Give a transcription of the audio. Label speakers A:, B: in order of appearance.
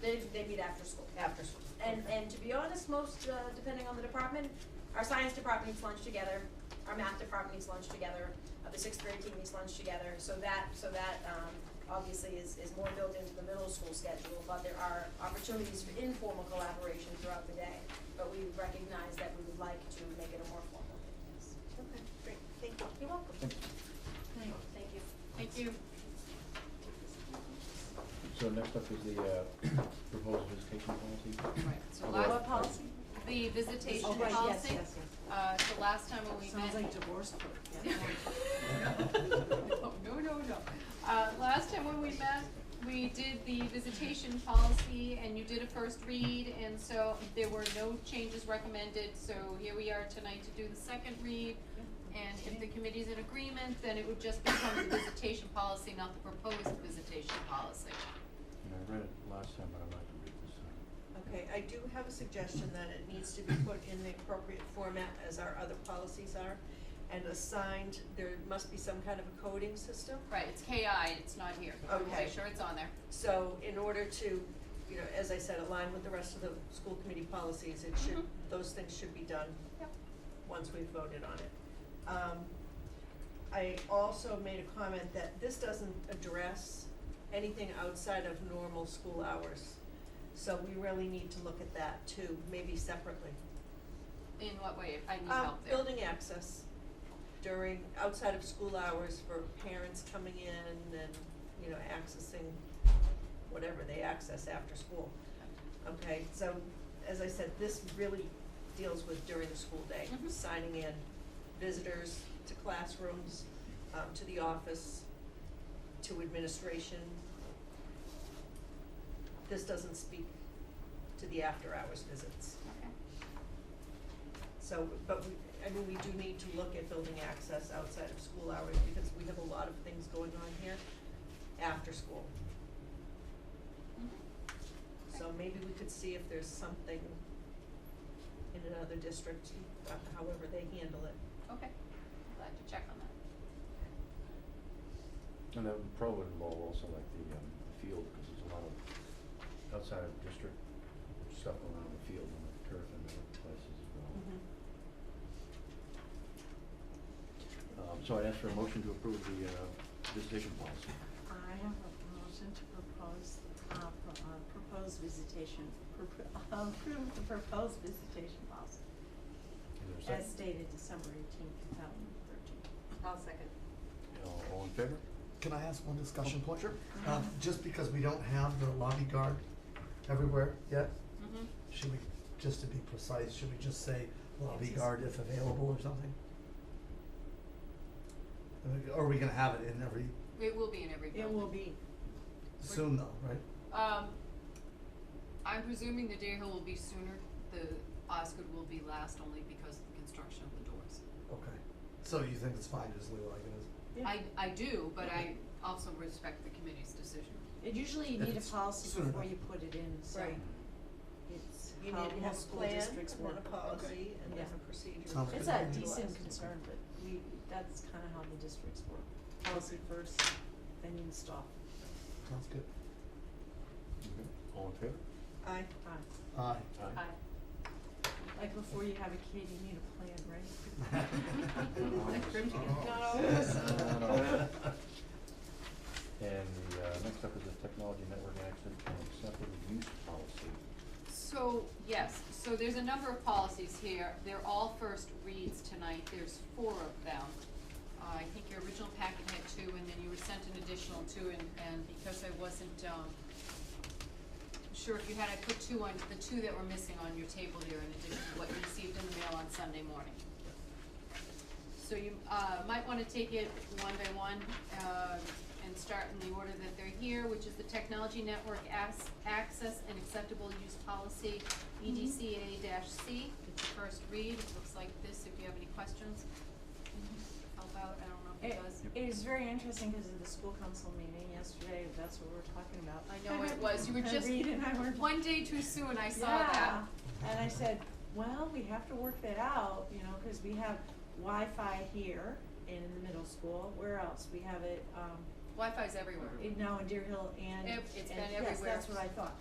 A: They, they meet after school.
B: after school.
A: And, and to be honest, most, uh, depending on the department, our science department eats lunch together, our math department eats lunch together, uh, the sixth grade team eats lunch together, so that, so that, um, obviously is, is more built into the middle school schedule, but there are opportunities for informal collaboration throughout the day. But we recognize that we would like to make it a more formal thing, yes.
B: Okay, great, thank you.
A: You're welcome.
C: Thank you.
A: Thank you.
D: Thank you.
C: So next up is the uh, proposed visitation policy.
D: Right, so
C: Oh,
D: last,
C: what
A: policy?
D: the visitation
B: Oh,
D: policy.
B: right, yes, yes, yes.
D: Uh, so last time when we met.
B: Sounds like divorce court, yeah.
D: No, no, no, no. Uh, last time when we met, we did the visitation policy and you did a first read and so there were no changes recommended. So here we are tonight to do the second read. And if the committee's in agreement, then it would just become the visitation policy, not the proposed visitation policy.
C: And I read it last time, but I'd like to read this time.
B: Okay, I do have a suggestion that it needs to be put in the appropriate format as our other policies are. And assigned, there must be some kind of a coding system.
D: Right, it's KI, it's not here. We'll
B: Okay.
D: Make sure it's on there.
B: So in order to, you know, as I said, align with the rest of the school committee policies, it should,
D: Mhm.
B: those things should be done
D: Yep.
B: once we've voted on it. Um, I also made a comment that this doesn't address anything outside of normal school hours. So we really need to look at that too, maybe separately.
D: In what way, if I need
B: Um,
D: help there?
B: building access during, outside of school hours for parents coming in and, you know, accessing whatever they access after school. Okay, so as I said, this really deals with during the school day,
D: Mhm.
B: signing in visitors to classrooms, um, to the office, to administration. This doesn't speak to the after-hours visits.
D: Okay.
B: So, but we, I mean, we do need to look at building access outside of school hours because we have a lot of things going on here after school.
D: Mhm.
B: So maybe we could see if there's something in another district, uh, however they handle it.
D: Okay, glad to check on that.
C: And that would probably involve also like the um, the field, because there's a lot of outside of district stuff around the field and the turf and other places as well.
E: Mm-hmm.
D: Mm-hmm.
C: Um, So I'd ask for a motion to approve the uh, visitation policy.
E: I have a motion to propose, uh, pro- uh, propose visitation, pro- approve the proposed visitation policy
C: Is there a second?
E: as stated December eighteenth, two thousand thirteen.
D: I'll second.
C: All- All in favor?
F: Can I ask one discussion point? Sure. Um, just because we don't have the lobby guard everywhere yet,
D: Mm-hmm.
F: should we, just to be precise, should we just say lobby guard if available or something? I mean, Are we gonna have it in every
D: It will be in every
E: It
D: building.
E: will be,
F: Zoom though, right?
D: Um, I'm presuming the Dare Hill will be sooner, the Osgood will be last only because of the construction of the doors.
F: Okay. So you think it's fine, just leave it like it
E: yeah.
D: I, I do, but I also respect the committee's decision.
E: It usually you
F: If
E: need a
F: it's
E: policy
F: soon
E: before
F: enough.
E: you put it in, so
B: Right.
C: Mm-hmm.
E: it's
B: You
E: how
B: need to have
E: most
B: a
E: school
B: plan,
E: districts
B: and then
E: work.
B: a policy, and then
E: Yeah.
B: a procedure.
F: Sounds
E: It's
F: good.
E: a
F: Utilize
E: decent concern, but we, that's kinda how the districts work. Policy first, then you install.
F: is. Sounds good.
C: Okay. All in favor?
B: Aye.
E: Aye.
F: Aye.
E: Like before you have a kid, you need a plan, right?
D: Like grim chicken.
F: Not
D: always.
C: Oh. Not always. And the, uh, next up is the technology network access and acceptable use policy.
D: So, yes, so there's a number of policies here, they're all first reads tonight, there's four of them. Uh, I think your original packet had two, and then you were sent an additional two, and, and because I wasn't, um, sure if you had, I put two on, the two that were missing on your table there in addition to what you received in the mail on Sunday morning. So you, uh, might wanna take it one by one, uh, and start in the order that they're here, which is the Technology Network Ac- Access and Acceptable Use Policy, EDCA C. It's the first read, it looks like this, if you have any questions. Help out, I don't know if
E: It,
D: it does.
E: it was very interesting because of the school council meeting yesterday, that's what we were talking about.
D: I know it was, you were just,
E: Reed and I were.
D: one day too soon, I saw
E: Yeah.
D: that.
E: And I said, well, we have to work that out, you know, cause we have Wi-Fi here in the middle school, where else? We have it, um,
D: Wi-Fi's everywhere.
E: in- now in Deer Hill and, and,
D: Ev- it's been
E: yes,
D: everywhere.
E: that's what I thought.